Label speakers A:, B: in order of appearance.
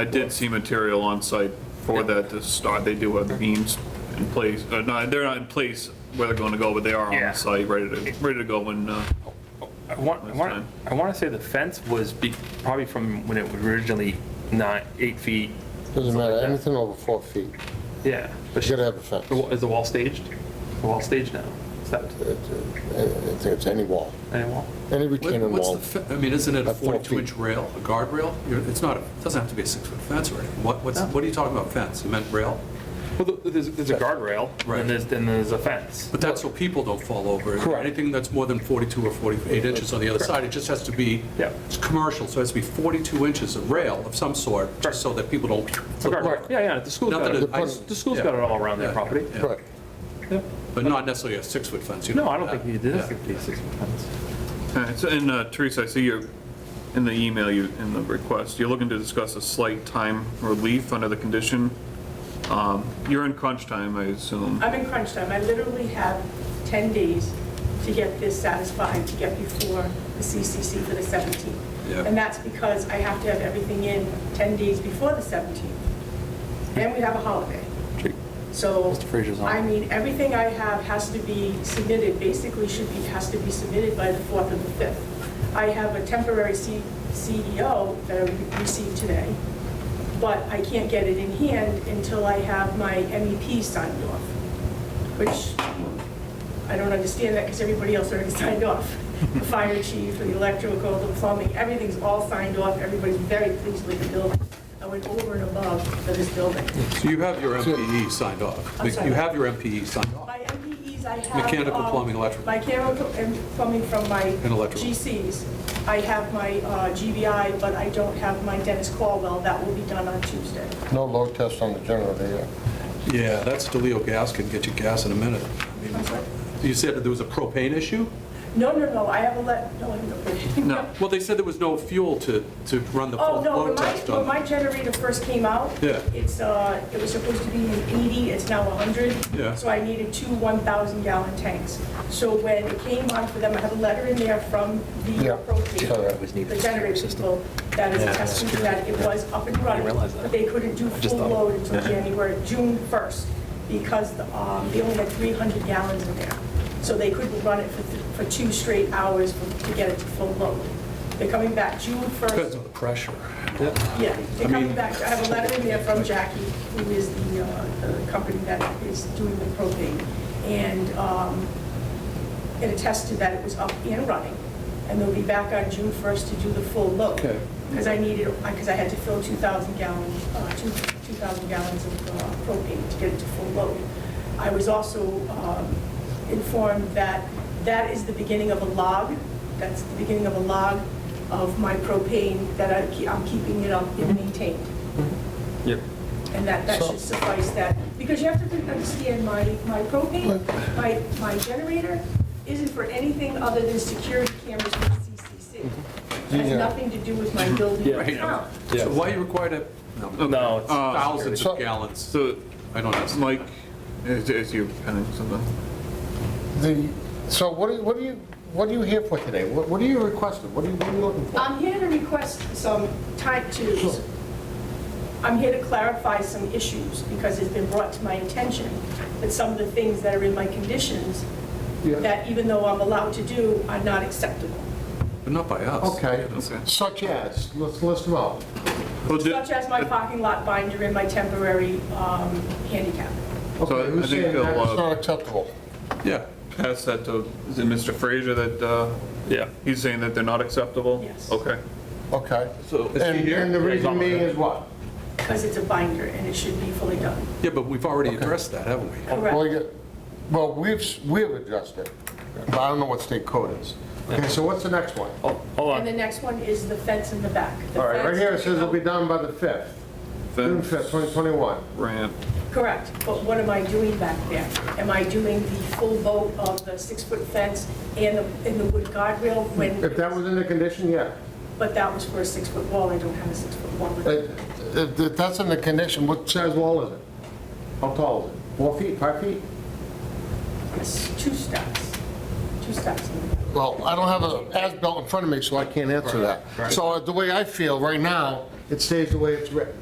A: I did see material on site for that to start. They do have beams in place, uh, no, they're not in place where they're going to go, but they are
B: Yeah.
A: on site, ready to, ready to go when, uh,
B: I want, I
A: That's
B: want,
A: fine.
B: I want to say the fence was be, probably from when it was originally nine, eight feet.
C: Doesn't matter, anything over four feet,
B: Yeah. But
C: you
B: sh-
C: gotta have a
B: the wa-
C: fence.
B: is the wall staged? The wall staged now? Is that
C: It- it- I I think it's any wall,
B: any wall?
C: any
D: What-
C: retaining
D: What's
C: wall.
D: the, fe- I mean, isn't it a
C: At four feet.
D: 42-inch rail, a guardrail? You're- It's not, it doesn't have to be a six-foot fence or anything. What, what's,
B: No.
D: what are you talking about fence? You meant rail?
B: Well, th- there's, there's a guardrail
D: Right.
B: and there's, and there's a fence.
D: But that's so people don't fall over.
B: Correct.
D: Anything that's more than 42 or 48 inches on the other side, it just has to be,
B: Yeah.
D: it's commercial, so it has to be 42 inches of rail of some sort,
B: Correct.
D: just so that people don't.
B: It's a guardrail. Yeah, yeah, the school's
D: Not
B: got
D: that
B: it,
D: it- I-
B: the school's got it all around their
D: Yeah.
B: property.
D: Yeah.
C: Correct.
B: Yeah.
D: But not necessarily a six-foot fence. you
B: No,
D: know,
B: I don't
D: that.
B: think you did
D: Yeah.
B: a 56 foot fence.
A: all right, so, and uh, Teresa, I see you're, in the email, you, in the request, you're looking to discuss a slight time relief under the condition. Um, You're in crunch time, I assume.
E: I'm in crunch time. I literally have 10 days to get this satisfied, to get before the CCC for the 17th.
D: Yeah.
E: And that's because I have to have everything in 10 days before the 17th. And we have a holiday. So,
B: Mr. Frazier's on.
E: I mean, everything I have has to be submitted, basically should be, has to be submitted by the 4th and the 5th. I have a temporary C- CEO that I received today, but I can't get it in hand until I have my MEP signed off, which I don't understand that because everybody else already signed off. The fire chief, the electrical, the plumbing, everything's all signed off, everybody's very pleased with the building. I went over and above for this building.
D: So you have your MPE signed off.
E: I'm sorry.
D: You have your MPE signed off.
E: My MPEs I have.
D: Mechanical,
E: um,
D: plumbing, electrical.
E: Mechanical and plumbing from my.
D: And electrical.
E: GCs. I have my uh, GBI, but I don't have my Dennis Caldwell. That will be done on Tuesday.
C: No load test on the generator yet.
D: Yeah, that's DeLeo gas, can get you gas in a minute. I mean, You said that there was a propane issue?
E: No, no, no, I have a let, no, I have no.
A: No,
D: Well, they said there was no fuel to, to run the
E: Oh,
D: full
E: no, when
D: load
E: my,
D: test
E: when my
D: on.
E: generator first came out.
D: Yeah.
E: It's, uh, it was supposed to be an 80, it's now 100.
D: Yeah.
E: So I needed two 1,000 gallon tanks. So when it came on for them, I had a letter in there from the
C: Yeah.
E: appropriate
C: Yeah.
E: the generator people, that is a testament that it was up and running,
F: realize that.
E: but they couldn't do full load until January, June 1st, because um, they only had 300 gallons in there. So they couldn't run it for th- for two straight hours for- to get it to full load. They're coming back June 1st.
D: Depends on the pressure.
E: Yeah, they're
D: I mean-
E: coming back, I have a letter in there from Jackie, who is the, uh, the company that is doing the propane, and, um, it attested that it was up and running, and they'll be back on June first to do the full load.
D: Okay.
E: Because I needed, because I had to fill two thousand gallons, uh, two, two thousand gallons of uh, propane to get it to full load. I was also, um, informed that that is the beginning of a log, that's the beginning of a log of my propane that I, ke- I'm keeping it up and maintained.
B: Yep.
E: And that, that
C: So-
E: should suffice that, because you have to understand, my, my propane, my, my generator isn't for anything other than security cameras for CCC. It Has
C: Mhm. Yeah.
E: nothing to do with my building
B: Yeah.
E: account.
D: So why you require to, no, Uh,
B: No, it's-
D: thousands
C: So-
D: of gallons?
A: so,
D: I don't know.
A: Mike, is, is you penning something?
C: The, so what are you, what are you, what are you here for today? What what are you requesting? What are you, what are you looking for?
E: I'm here to request some type twos. I'm here to clarify some issues, because it's been brought to my attention that some of the things that are in my conditions,
C: Yeah.
E: that even though I'm allowed to do, are not acceptable.
D: But not by us.
C: Okay,
A: Okay.
C: such as, let's list them out.
A: Well, di-
E: Such as my parking lot binder and my temporary um, handicap.
A: I-
C: Okay,
A: I
C: who's
A: think
C: saying that
A: they'll,
C: it's
A: uh,
C: not acceptable?
D: Yeah.
A: Pass that to, is it Mr. Fraser that, uh,
B: Yeah.
A: he's saying that they're not acceptable?
E: Yes.
A: Okay.
C: Okay.
D: So,
C: And, and the
B: Yeah, he's on
C: reason
B: the-
C: being is what?
E: Because it's a binder and it should be fully done.
D: yeah, but we've already addressed that, haven't we?
C: Well,
E: Correct.
C: you- Well, we've, s- we've addressed it, but I don't know what state code is. Okay, so what's the next one?
B: Oh, hold
E: And the
B: on.
E: next one is the fence in the back. The
C: All right, right
E: fence-
C: here it says it'll be done by the 5th, June 5th, 2021.
A: Ramp.
E: Correct, but what am I doing back there? Am I doing the full vote of the six-foot fence and the, and the wood guardrail when?
C: If that was in the condition, yeah.
E: But that was for a six-foot wall, I don't have a six-foot wall.
C: If if that's in the condition, what size wall is it? How tall is it? Four feet, five feet?
E: It's two steps, two steps. in the back.
C: Well, I don't have a uh, as-built in front of me, so I can't answer that. So the way I feel right now, it stays the way it's written.